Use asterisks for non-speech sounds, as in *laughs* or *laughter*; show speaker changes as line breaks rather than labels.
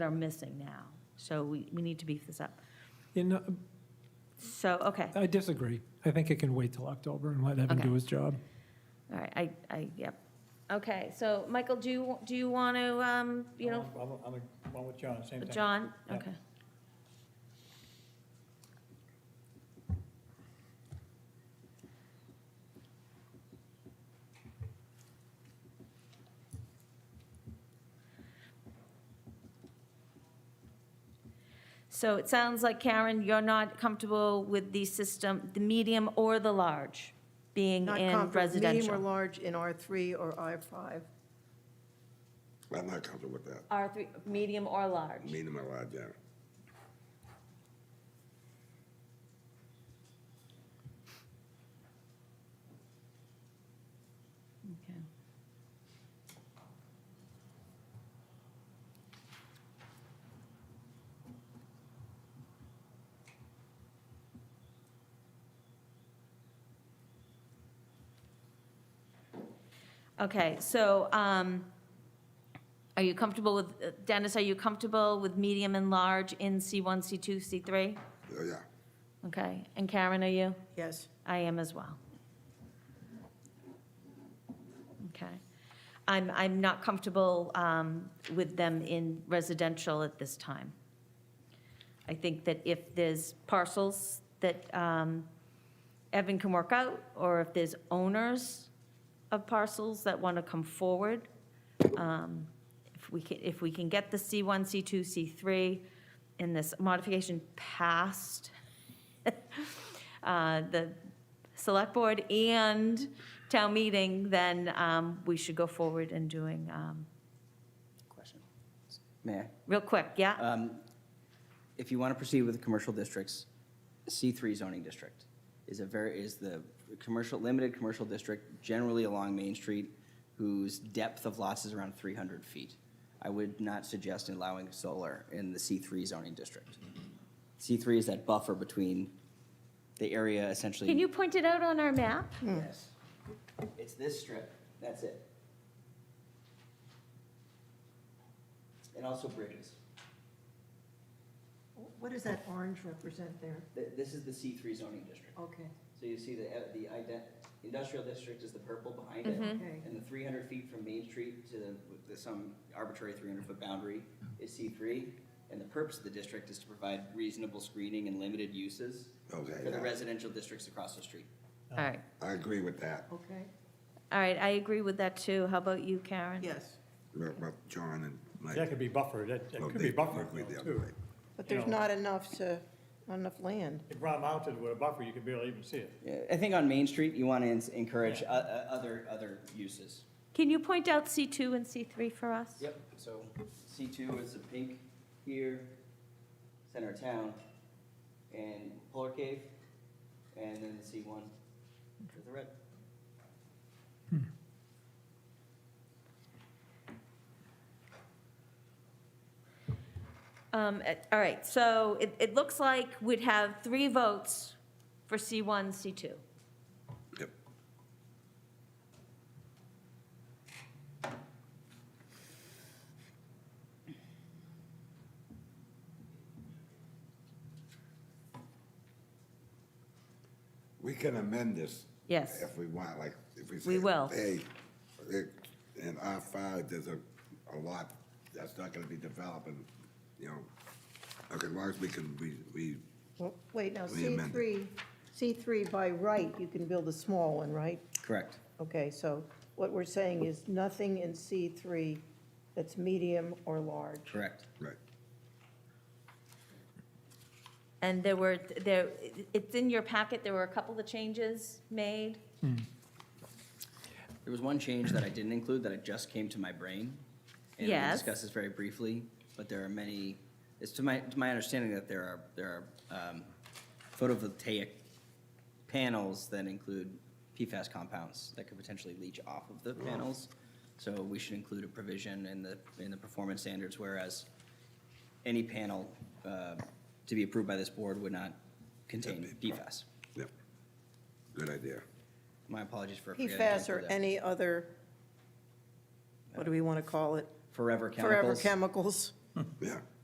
that are missing now. So we, we need to beef this up.
You know,
So, okay,
I disagree. I think it can wait till October and let Evan
Okay.
do his job.
all right, I, I, yep. Okay, so, Michael, do you, do you want to, um, you know,
I'm, I'm, I'm with John, same thing.
John?
Yeah.
Okay. So it sounds like, Karen, you're not comfortable with the system, the medium or the large being
Not
in
comparable, Medium or
residential?
large in R3 or R5.
I'm not comfortable with that.
R3, medium or large?
Meaning my life, yeah.
Okay. Okay, so, um, are you comfortable with, Dennis, are you comfortable with medium and large in C1, C2, C3?
Yeah, yeah.
Okay, and Karen, are you?
Yes.
I am as well. Okay. I'm, I'm not comfortable um, with them in residential at this time. I think that if there's parcels that um, Evan can work out, or if there's owners of parcels that want to come forward, um, if we can, if we can get the C1, C2, C3 in this modification passed, *laughs* uh, the select board and town meeting, then um, we should go forward and doing, um,
Question. May
real quick,
I?
yeah?
Um, If you want to proceed with the commercial districts, C3 zoning district is a very, is the commercial, limited commercial district generally along Main Street whose depth of lots is around 300 feet. I would not suggest allowing solar in the C3 zoning district. C3 is that buffer between the area essentially.
Can you point it out on our map?
Yes. It's this strip, that's it. And also bridges.
What does that orange represent there?
Th- This is the C3 zoning district.
Okay,
So you see the, uh, the ident, industrial district is the purple behind it.
Okay.
And the 300 feet from Main Street to the- with the, some arbitrary 300-foot boundary is C3. And the purpose of the district is to provide reasonable screening and limited uses
Okay,
for the
yeah.
residential districts across the street.
All right,
I agree with that.
okay.
all right, I agree with that too. How about you, Karen?
Yes.
About about John and Mike.
That could be buffered, that, that
Well,
could
they
be buffered
agree the
though,
other
too.
way.
But
You
there's
know.
not enough to, not enough land.
If ground mounted with a buffer, you could barely even see it.
Yeah, I think on Main Street, you want to encourage o- o- other, other uses.
Can you point out C2 and C3 for us?
Yep, so C2 is the pink here, center of town, and Polar Cave, and then the C1 is the red.
Um, uh, All right, so it, it looks like we'd have three votes for C1, C2.
Yep. We can amend this.
Yes.
If we want, like, if we say.
We will.
Hey, it- in R five, there's a, a lot that's not gonna be developing, you know, okay, as long as we can, we, we,
Well, Wait, now,
We amend
C3, C3 by right, you can build a small one, right?
Correct.
Okay, so what we're saying is nothing in C3 that's medium or large.
Correct.
right.
And there were, there, it's in your packet, there were a couple of changes made.
There was one change that I didn't include that it just came to my brain. And
Yes.
we'll discuss this very briefly, but there are many, it's to my, to my understanding that there are, there are um, photovoltaic panels that include PFAS compounds that could potentially leach off of the panels. So we should include a provision in the, in the performance standards, whereas any panel uh, to be approved by this board would not contain PFAS.
Yep. Good idea.
My apologies for. forgetting to
PFAS or
include that.
any other, what do we want to call it?
Forever chemicals.
Forever chemicals.
yeah.